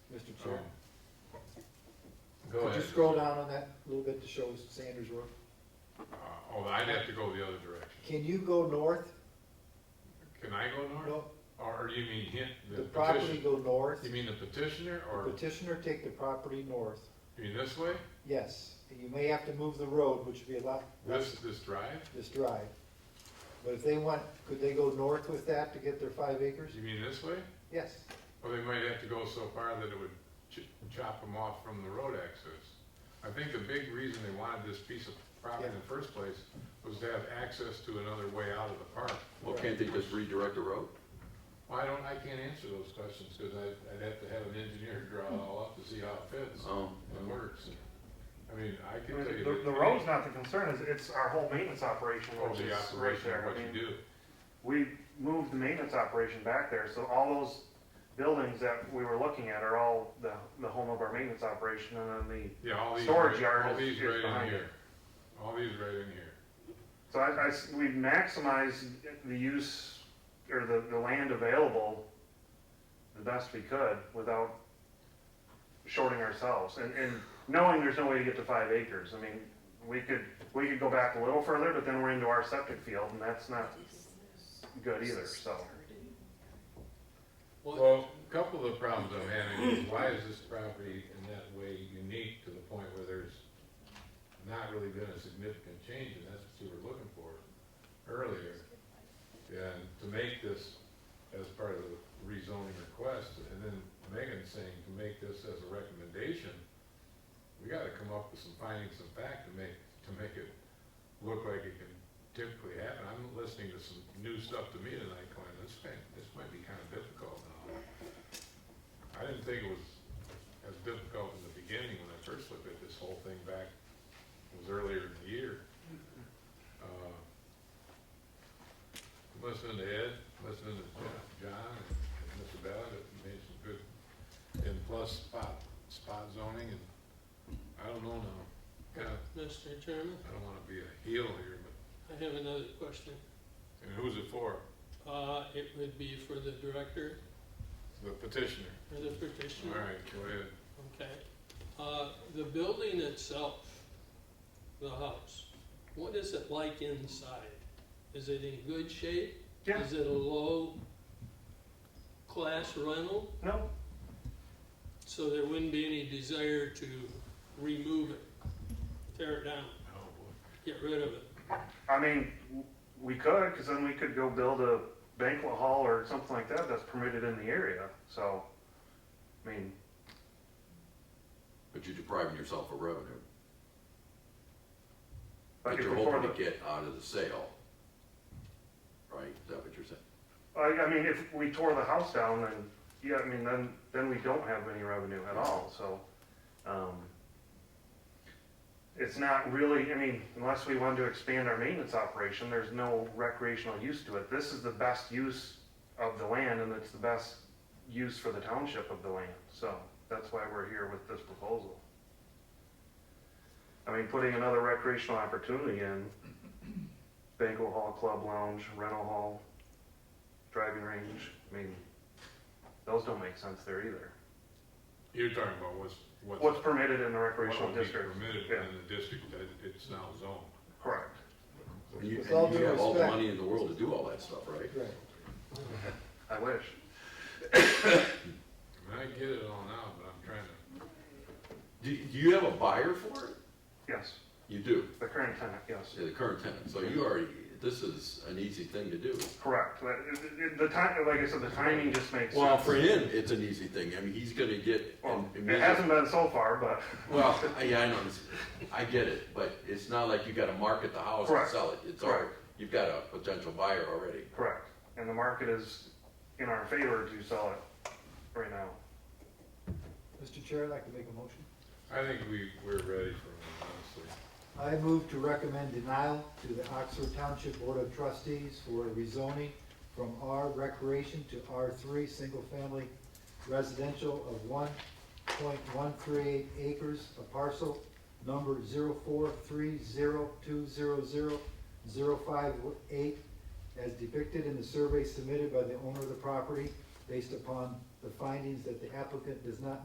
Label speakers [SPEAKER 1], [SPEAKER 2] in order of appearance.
[SPEAKER 1] Oh, Go
[SPEAKER 2] Could
[SPEAKER 1] ahead.
[SPEAKER 2] you scroll down on that a little bit to show Sanders Road?
[SPEAKER 1] Uh, Oh, I'd have to go the other direction.
[SPEAKER 2] Can you go north?
[SPEAKER 1] Can I go north?
[SPEAKER 2] No,
[SPEAKER 1] Or you mean hit
[SPEAKER 2] the
[SPEAKER 1] the
[SPEAKER 2] property
[SPEAKER 1] petition?
[SPEAKER 2] go north,
[SPEAKER 1] You mean the petitioner
[SPEAKER 2] The
[SPEAKER 1] or
[SPEAKER 2] petitioner take the property north,
[SPEAKER 1] you mean this way?
[SPEAKER 2] yes. You may have to move the road, which would be a lot,
[SPEAKER 1] This, this drive?
[SPEAKER 2] this drive. But if they want, could they go north with that to get their five acres?
[SPEAKER 1] You mean this way?
[SPEAKER 2] Yes,
[SPEAKER 1] Or they might have to go so far that it would ch- chop them off from the road access. I think the big reason they wanted this piece of property in the first place was to have access to another way out of the park.
[SPEAKER 3] Well, can't they just redirect the road?
[SPEAKER 1] Well, I don't, I can't answer those questions because I'd, I'd have to have an engineer draw it all up to see how it fits
[SPEAKER 3] Oh,
[SPEAKER 4] Um,
[SPEAKER 1] and works. I mean, I
[SPEAKER 4] I
[SPEAKER 1] can
[SPEAKER 4] mean,
[SPEAKER 1] tell you.
[SPEAKER 4] The,
[SPEAKER 1] that-
[SPEAKER 4] the road's not the concern, it's, it's our whole maintenance operation,
[SPEAKER 1] Oh,
[SPEAKER 4] which is
[SPEAKER 1] the
[SPEAKER 4] right
[SPEAKER 1] operation,
[SPEAKER 4] there.
[SPEAKER 1] what
[SPEAKER 4] I mean,
[SPEAKER 1] you do.
[SPEAKER 4] we moved the maintenance operation back there, so all those buildings that we were looking at are all the, the home of our maintenance operation, and then the,
[SPEAKER 1] Yeah, all these,
[SPEAKER 4] Storage
[SPEAKER 1] right-
[SPEAKER 4] yard
[SPEAKER 1] all
[SPEAKER 4] is-
[SPEAKER 1] these
[SPEAKER 4] is
[SPEAKER 1] right in
[SPEAKER 4] behind
[SPEAKER 1] here. All these right in here.
[SPEAKER 4] so I, I s- we maximized the use, or the, the land available the best we could without shorting ourselves, and, and knowing there's no way to get to five acres, I mean, we could, we could go back a little further, but then we're into our septic field, and that's not good either, so.
[SPEAKER 1] Well, a couple of the problems I'm having is why is this property in that way unique to the point where there's not really been a significant change, and that's what you were looking for earlier. And to make this as part of the rezoning request, and then Megan saying to make this as a recommendation, we gotta come up with some findings of fact to make, to make it look like it can typically happen. I'm listening to some new stuff to me tonight going, this might, this might be kind of difficult now. I didn't think it was as difficult in the beginning when I first looked at this whole thing back, it was earlier in the year. Uh, Listening to Ed, listening to Jo- John and and Mr. Ballard, it made some good, and plus spot, spot zoning and, I don't know now. Kinda
[SPEAKER 5] Mr. Chairman,
[SPEAKER 1] I don't wanna be a heel here, but,
[SPEAKER 5] I have another question.
[SPEAKER 1] and who's it for?
[SPEAKER 5] Uh, it would be for the director
[SPEAKER 1] The petitioner.
[SPEAKER 5] or the
[SPEAKER 4] Mm-hmm.
[SPEAKER 5] petitioner?
[SPEAKER 1] Alright, go ahead.
[SPEAKER 5] Okay. Uh, the building itself, the house, what is it like inside? Is it in good shape?
[SPEAKER 4] Yeah.
[SPEAKER 5] Is it a low-class rental?
[SPEAKER 4] No,
[SPEAKER 5] So there wouldn't be any desire to remove it, tear it down,
[SPEAKER 1] Oh, boy.
[SPEAKER 5] get rid of it?
[SPEAKER 4] I mean, w- we could, because then we could go build a banquet hall or something like that that's permitted in the area, so, I mean,
[SPEAKER 3] but you're depriving yourself of revenue
[SPEAKER 4] like
[SPEAKER 3] that
[SPEAKER 4] if
[SPEAKER 3] you're
[SPEAKER 4] before
[SPEAKER 3] hoping
[SPEAKER 4] the,
[SPEAKER 3] to get out of the sale. Right, is that what you're saying?
[SPEAKER 4] I, I mean, if we tore the house down, then, yeah, I mean, then, then we don't have any revenue at all, so, um, it's not really, I mean, unless we wanted to expand our maintenance operation, there's no recreational use to it. This is the best use of the land, and it's the best use for the township of the land, so that's why we're here with this proposal. I mean, putting another recreational opportunity in, banquet hall, club lounge, rental hall, driving range. I mean, those don't make sense there either.
[SPEAKER 1] You're talking about what's, what's.
[SPEAKER 4] What's permitted in the
[SPEAKER 1] what
[SPEAKER 4] recreational
[SPEAKER 1] would be
[SPEAKER 4] district?
[SPEAKER 1] Permitted
[SPEAKER 4] Yeah.
[SPEAKER 1] in the district that it's now zoned.
[SPEAKER 4] Correct.
[SPEAKER 3] And you,
[SPEAKER 2] With all
[SPEAKER 3] and you
[SPEAKER 2] due
[SPEAKER 3] have all the
[SPEAKER 2] respect-
[SPEAKER 3] money in the world to do all that stuff, right?
[SPEAKER 2] right.
[SPEAKER 4] I wish.
[SPEAKER 1] I mean, I get it all now, but I'm trying to,
[SPEAKER 3] Do, do you have a buyer for it?
[SPEAKER 4] Yes,
[SPEAKER 3] You do,
[SPEAKER 4] the current tenant, yes.
[SPEAKER 3] yeah, the current tenant, so you already, this is an easy thing to do.
[SPEAKER 4] Correct. But it- it- The time, like I said, the timing just makes
[SPEAKER 3] Well,
[SPEAKER 4] sense.
[SPEAKER 3] for him, it's an easy thing, I mean, he's gonna get.
[SPEAKER 4] Well,
[SPEAKER 3] an
[SPEAKER 4] it
[SPEAKER 3] immediate-
[SPEAKER 4] hasn't been so far, but
[SPEAKER 3] Well, I- yeah, I know, it's- I get it, but it's not like you gotta market the house and
[SPEAKER 4] Correct.
[SPEAKER 3] sell it, it's already,
[SPEAKER 4] Correct.
[SPEAKER 3] you've got a potential buyer already.
[SPEAKER 4] correct. And the market is in our favor to sell it right now.
[SPEAKER 2] Mr. Chair, I'd like to make a motion.
[SPEAKER 1] I think we, we're ready for it, honestly.
[SPEAKER 2] I move to recommend denial to the Oxford Township Board of Trustees for rezoning from R recreation to R three, single-family residential of one point one three eight acres, a parcel number zero four three zero two zero zero zero five eight, as depicted in the survey submitted by the owner of the property, based upon the findings that the applicant does not